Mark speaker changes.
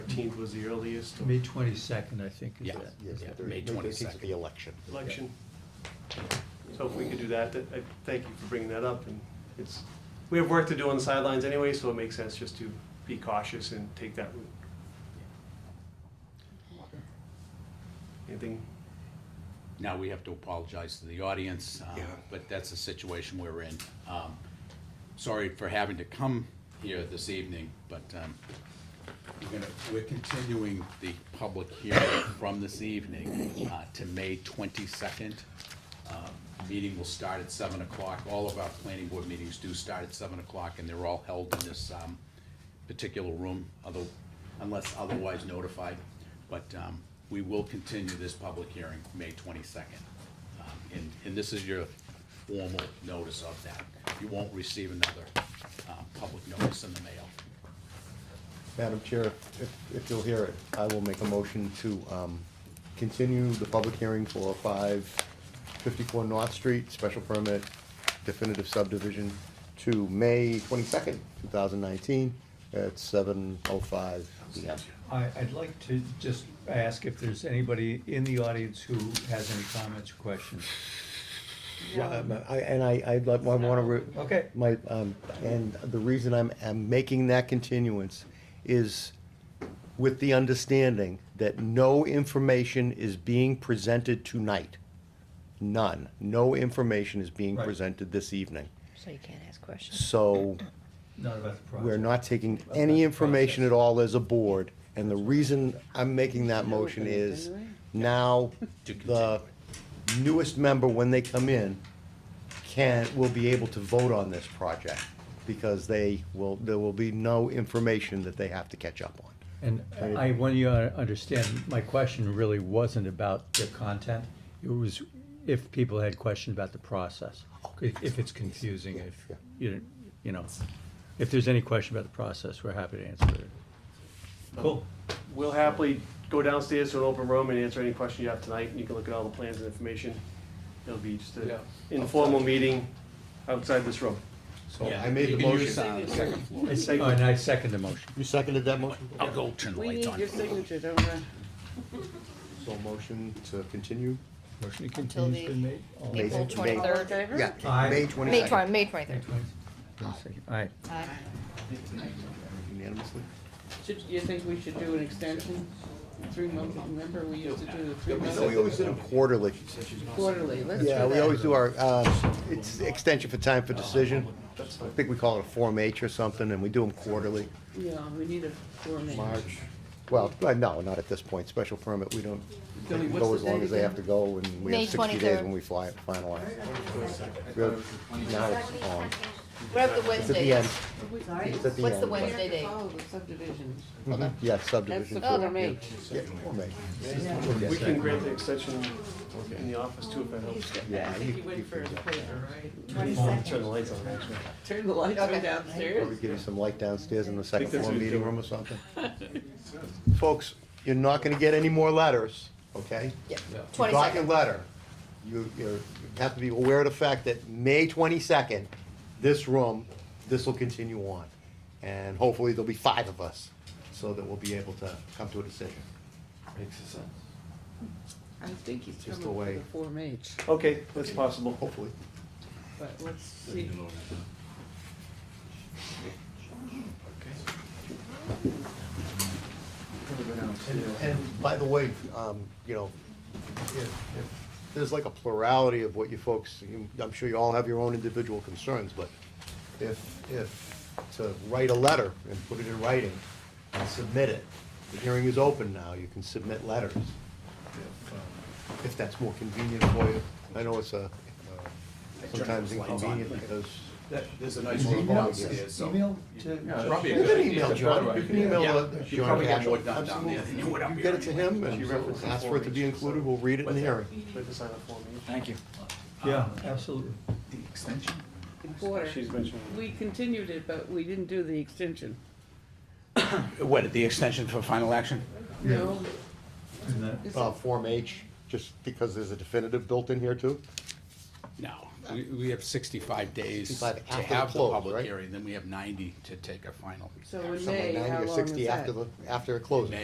Speaker 1: 13th was the earliest.
Speaker 2: May twenty-second, I think, is
Speaker 3: Yeah.
Speaker 2: it?
Speaker 4: Yes,
Speaker 3: Yeah,
Speaker 4: the
Speaker 3: May
Speaker 4: 13th is
Speaker 3: 22nd.
Speaker 4: the election.
Speaker 1: election. So if we could do that, that- I thank you for bringing that up, and it's, we have work to do on the sidelines anyway, so it makes sense just to be cautious and take that route. Anything?
Speaker 3: Now, we have to apologize to the audience, uh,
Speaker 1: Yeah.
Speaker 3: but that's the situation we're in. Um, Sorry for having to come here this evening, but um, we're gonna- we're continuing the public hearing from this evening uh, to May 22nd. Uh, Meeting will start at 7 o'clock. All of our planning board meetings do start at 7 o'clock, and they're all held in this um, particular room, other- unless otherwise notified. But um, we will continue this public hearing, May 22nd. Um, And, and this is your formal notice of that. You won't receive another uh, public notice in the mail.
Speaker 4: Madam Chair, if, if you'll hear it, I will make a motion to um, continue the public hearing for 554 North Street, special permit definitive subdivision to May 22nd, 2019, at 7:05 PM.
Speaker 2: I, I'd like to just ask if there's anybody in the audience who has any comments or questions.
Speaker 4: Yeah, um, I- And I, I'd like, I want to,
Speaker 2: Okay,
Speaker 4: my, um, and the reason I'm, I'm making that continuance is with the understanding that no information is being presented tonight. None. No information is being
Speaker 2: Right.
Speaker 4: presented this evening.
Speaker 5: So you can't ask questions.
Speaker 4: So
Speaker 2: not about the project.
Speaker 4: we're not taking
Speaker 2: Well, that's
Speaker 4: any
Speaker 2: the
Speaker 4: information
Speaker 2: process.
Speaker 4: at all as a board. And the reason I'm making that motion is now
Speaker 3: To
Speaker 4: the newest member, when they come in, can, will be able to vote on this project because they will, there will be no information that they have to catch up on.
Speaker 2: And I want you to understand, my question really wasn't about the content. It was if people had questions about the process. If, if it's confusing, if,
Speaker 4: Yeah,
Speaker 2: you, you know, if there's any question about the process, we're happy to answer it. Cool.
Speaker 1: We'll happily go downstairs to an open room and answer any question you have tonight, and you can look at all the plans and information. It'll be just an informal meeting outside this room.
Speaker 4: So I made the motion.
Speaker 3: on the second floor.
Speaker 2: I sec- oh, And I second the motion.
Speaker 4: You seconded that motion?
Speaker 3: I'll go turn the
Speaker 6: We
Speaker 3: lights
Speaker 6: need
Speaker 3: on.
Speaker 6: your signature, don't we?
Speaker 4: So motion to continue?
Speaker 2: Motion to
Speaker 5: Until
Speaker 2: continue's
Speaker 5: the
Speaker 2: been made. All in
Speaker 5: April
Speaker 2: favor?
Speaker 4: May-
Speaker 6: All in
Speaker 5: 23rd.
Speaker 6: favor?
Speaker 4: Yeah,
Speaker 2: Aye.
Speaker 4: May
Speaker 5: May
Speaker 4: 22nd.
Speaker 5: 20, May 23rd.
Speaker 2: Aye.
Speaker 5: Aye.
Speaker 4: Unanimously?
Speaker 6: Should, you think we should do an extension, three months, remember, we used to do the three
Speaker 4: No, we always
Speaker 6: months
Speaker 4: did them quarterly.
Speaker 6: quarterly, let's do that.
Speaker 4: Yeah, we always do our, uh, it's extension for time for decision. I think we call it a Form H or something, and we do them quarterly.
Speaker 6: Yeah, we need a form. in.
Speaker 4: March. Well, uh, no, not at this point, special permit, we don't, they
Speaker 6: Billy,
Speaker 4: can
Speaker 6: what's
Speaker 4: go
Speaker 6: the
Speaker 4: as long
Speaker 6: date
Speaker 4: as they have to
Speaker 6: again?
Speaker 4: go, and we
Speaker 5: May
Speaker 4: have sixty days
Speaker 5: 23rd.
Speaker 4: when we fly, finalize. We have- Now it's on,
Speaker 5: What about
Speaker 4: it's
Speaker 5: the
Speaker 4: at the
Speaker 5: Wednesday?
Speaker 4: end, it's at the end.
Speaker 5: What's the Wednesday date?
Speaker 6: Oh, the subdivision,
Speaker 4: Mhm. Yeah,
Speaker 6: that's the
Speaker 4: subdivision.
Speaker 5: Oh,
Speaker 6: form H.
Speaker 4: Yeah, Form H.
Speaker 1: We can grant the extension in the office too, if that helps.
Speaker 4: Yeah,
Speaker 6: I think
Speaker 4: you-
Speaker 6: you went
Speaker 4: you
Speaker 6: for
Speaker 4: can
Speaker 6: his
Speaker 4: do that.
Speaker 6: paper, right?
Speaker 1: Turn the lights on, actually.
Speaker 6: Turn the lights on
Speaker 4: Probably
Speaker 5: Okay.
Speaker 6: downstairs.
Speaker 4: give you some light downstairs in the second
Speaker 1: that's
Speaker 4: floor
Speaker 1: what we
Speaker 4: meeting
Speaker 1: do.
Speaker 4: room or something. Folks, you're not gonna get any more letters, okay?
Speaker 5: Yep.
Speaker 4: You got your
Speaker 5: 22nd.
Speaker 4: letter. You, you're- you have to be aware of the fact that May twenty-second, this room, this will continue on. And hopefully there'll be five of us, so that we'll be able to come to a decision.
Speaker 6: I think he's
Speaker 4: Just
Speaker 6: coming
Speaker 4: the
Speaker 6: for
Speaker 4: way-
Speaker 6: the form H,
Speaker 1: Okay, that's possible.
Speaker 4: Hopefully.
Speaker 6: but let's see.
Speaker 4: And by the way, um, you know, if, if, there's like a plurality of what you folks, you- I'm sure you all have your own individual concerns, but if, if, to write a letter and put it in writing and submit it, the hearing is open now, you can submit letters. if, um, If that's more convenient for you. I know it's a, uh, sometimes inconvenient because.
Speaker 3: There's a nice
Speaker 4: little bar upstairs,
Speaker 2: Email to.
Speaker 3: Probably
Speaker 4: You
Speaker 3: a good
Speaker 4: can
Speaker 3: idea.
Speaker 4: email John, you can email
Speaker 3: Yeah,
Speaker 4: uh,
Speaker 3: you
Speaker 4: John
Speaker 3: probably get more
Speaker 4: Cashel.
Speaker 3: done down there than you would up here
Speaker 4: Absolutely. You get it to him
Speaker 1: She
Speaker 4: and
Speaker 1: referenced
Speaker 4: ask for it to be
Speaker 1: the
Speaker 4: included, we'll read it in the hearing.
Speaker 1: We have to sign a form.
Speaker 7: Thank you.
Speaker 2: Yeah, absolutely.
Speaker 7: The extension?
Speaker 6: Quarter.
Speaker 1: She's mentioning.
Speaker 6: We continued it, but we didn't do the extension.
Speaker 7: What, the extension for final action?
Speaker 6: No,
Speaker 2: And that-
Speaker 6: this is-
Speaker 4: Uh, Form H, just because there's a definitive built in here too?
Speaker 3: No, we, we have sixty-five days to
Speaker 4: 65 after the
Speaker 3: have the
Speaker 4: close,
Speaker 3: public
Speaker 4: right?
Speaker 3: hearing, then we have ninety to take a final.
Speaker 6: so in
Speaker 4: Something
Speaker 6: May,
Speaker 4: like
Speaker 6: how
Speaker 4: 90 or
Speaker 6: long is
Speaker 4: 60
Speaker 6: that?
Speaker 4: After the, after it closes.